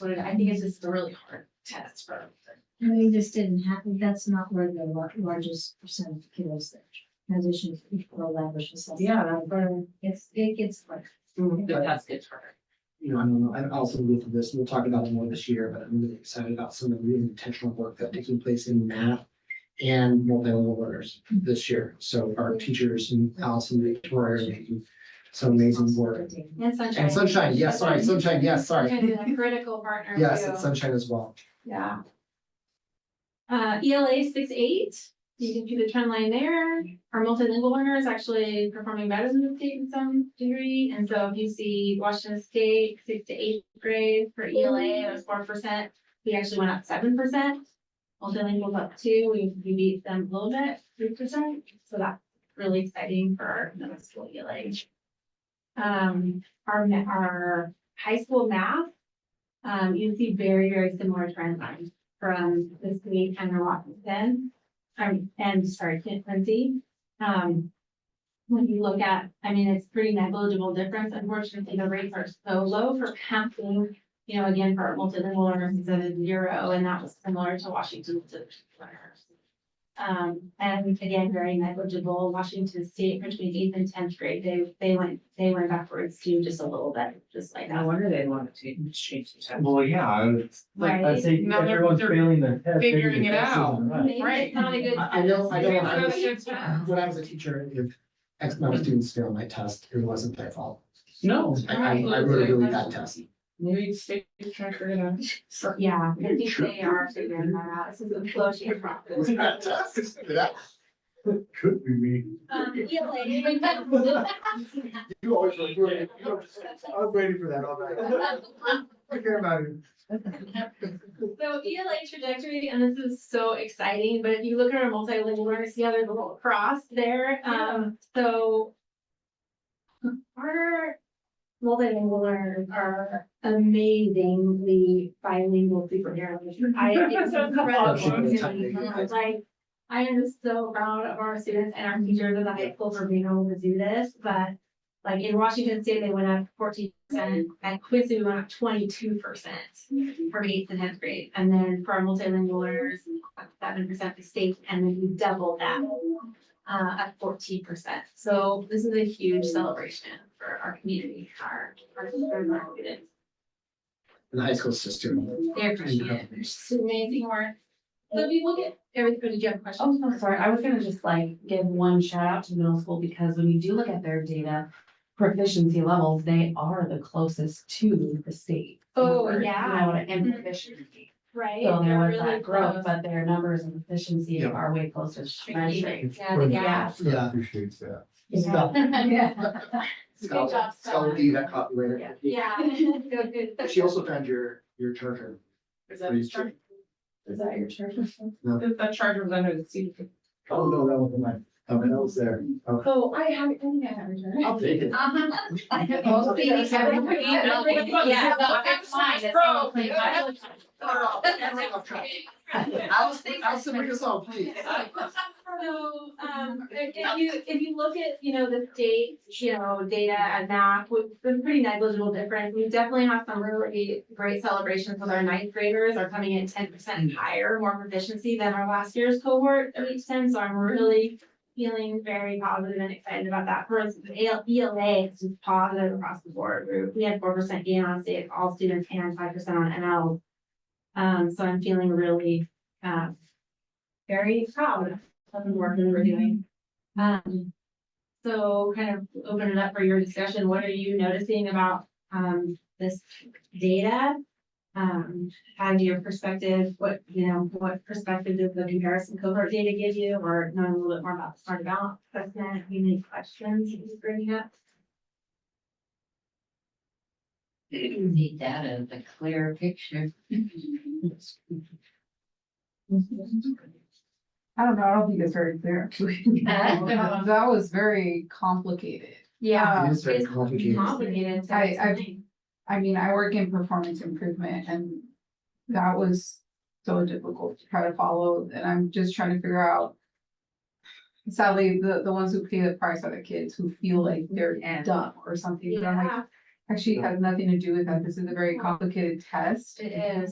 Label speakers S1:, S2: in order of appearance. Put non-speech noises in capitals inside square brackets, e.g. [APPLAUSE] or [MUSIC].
S1: what it- I think it's just a really hard test for.
S2: I mean, this didn't happen, that's not where the lar- largest percent of kiddos that transition to equal language assessment.
S3: Yeah, but,
S2: It's, it gets like,
S1: The test gets harder.
S4: you know, I don't know, I'm also with this, we'll talk about it more this year, but I'm really excited about some of the really intentional work that's taking place in math and multilingual learners this year. So our teachers and Allison Victoria are making some amazing work.
S1: And sunshine.
S4: And Sunshine, yes, sorry, Sunshine, yes, sorry.
S1: Sunshine is a critical partner
S4: Yes,
S1: too.
S4: and Sunshine as well.
S1: Yeah. Uh, ELA six eight, you can see the trend line there. Our multilingual learner is actually performing better than the state in some degree. And so if you see Washington State, sixth to eighth grade for ELA, it was four percent. We actually went up seven percent. Multilingual up two, we, we beat them a little bit, three percent. So that's really exciting for our middle school ELA. Um, our, ma- our high school math um, you see very, very similar trend lines from this week and our Washington. Um, and sorry, Kent Quincy. Um, when you look at, I mean, it's pretty negligible difference. Unfortunately, the rates are so low for passing. You know, again, for our multilingual learners, it's at a zero, and that was similar to Washington learners. Um, and again, very negligible. Washington State between eighth and tenth grade, they, they went, they went backwards too, just a little bit, just like
S3: no
S1: that.
S3: wonder they want to change, change the test.
S5: Well, yeah, it's like, I
S1: Right.
S5: say,
S6: Now they're-
S5: everyone's
S6: they're
S5: failing the test. maybe
S6: figuring
S5: the
S6: it
S5: test
S6: out.
S5: isn't right.
S1: Maybe it's not a good.
S4: I I know, I know, I
S1: Maybe
S4: was-
S1: it's
S4: when I was a teacher, if X amount of students failed my test, it wasn't their fault.
S6: No.
S4: I, I I wrote a really bad test.
S6: Maybe state is trying to figure it out.
S1: Yeah, I think they are figuring that out. This is a flow sheet process.
S4: [LAUGHS] That could be me.
S1: Um, ELA.
S4: You always, you always- I was waiting for that all night. [LAUGHS] Forget about it.
S1: So ELA trajectory, and this is so exciting, but if you look at our multilingual learners, yeah, there's a little cross there, um, so. Our multilingual learners are amazingly bilingual superheroes. I, [LAUGHS] it's
S4: Oh, she's gonna tell me.
S1: incredible. Like, I am so proud of our students and our teachers at the high school for being able to do this, but like in Washington State, they went up fourteen percent, at Quincy, we went up twenty-two percent for eighth and tenth grade, and then for our multilingual learners, seven percent the state, and then we doubled that uh, at fourteen percent. So this is a huge celebration for our community, our, our students.
S4: And the high school system.
S1: They appreciate it. It's amazing work. So we will get, everybody, do you have questions?
S3: Oh, I'm sorry, I was gonna just like give one shout out to middle school, because when you do look at their data proficiency levels, they are the closest to the state.
S1: Oh,
S3: number,
S1: yeah.
S3: You know, and
S2: Mm-hmm.
S3: proficiency.
S1: Right?
S3: So there
S1: They're
S3: was
S1: really
S3: that growth,
S1: close.
S3: but their numbers and proficiency
S4: Yeah.
S3: are way closer to measuring.
S1: Yeah, the gap.
S4: Yeah.
S5: Appreciates that.
S3: [LAUGHS]
S4: Stop.
S1: Good job,
S4: Scott, Scott, do that copywriter.
S1: Yeah. [LAUGHS] Good, good.
S4: She also found your, your charger.
S6: Is that his charger?
S3: Is that your church?
S6: That that charger was under the seat.
S4: Oh, no, that wasn't mine. Okay, that was there. Okay.
S6: Oh, I have, I think I have it.
S4: I'll take it.
S3: Most babies have a pretty email.
S6: Yeah.
S3: No, it's mine. It's only twenty five.
S4: Allison, Allison, bring us all, please.
S1: So, um, if if you, if you look at, you know, the state, you know, data and map, with with pretty negligible difference, we definitely have some really great celebrations with our ninth graders are coming in ten percent higher, more proficiency than our last year's cohort at each time, so I'm really feeling very positive and excited about that. For us, the AL ELA is just positive across the board. We- We had four percent gain on state, all students, and five percent on NL. Um, so I'm feeling really, uh, very proud of the work that we're doing. Um, so kind of open it up for your discussion. What are you noticing about, um, this data? Um, out of your perspective, what, you know, what perspective does the comparison cohort data give you? Or knowing a little bit more about the starting balance assessment, if you need questions, you just bring it up.
S7: Need that as a clear picture.
S8: I don't know, I don't think it's very clear.
S1: [LAUGHS]
S7: Uh,
S8: That was very complicated.
S1: Yeah.
S4: It is very complicated.
S1: Complicated. so
S8: I-
S1: it's
S8: I've-
S1: something.
S8: I mean, I work in performance improvement and that was so difficult to try to follow and I'm just trying to figure out. Sadly, the, the ones who pay the price are the kids who feel like they're
S3: Yeah.
S8: dumb or something. But I'm like,
S1: Yeah, actually has nothing to do with that. This is a very complicated test.
S3: It is.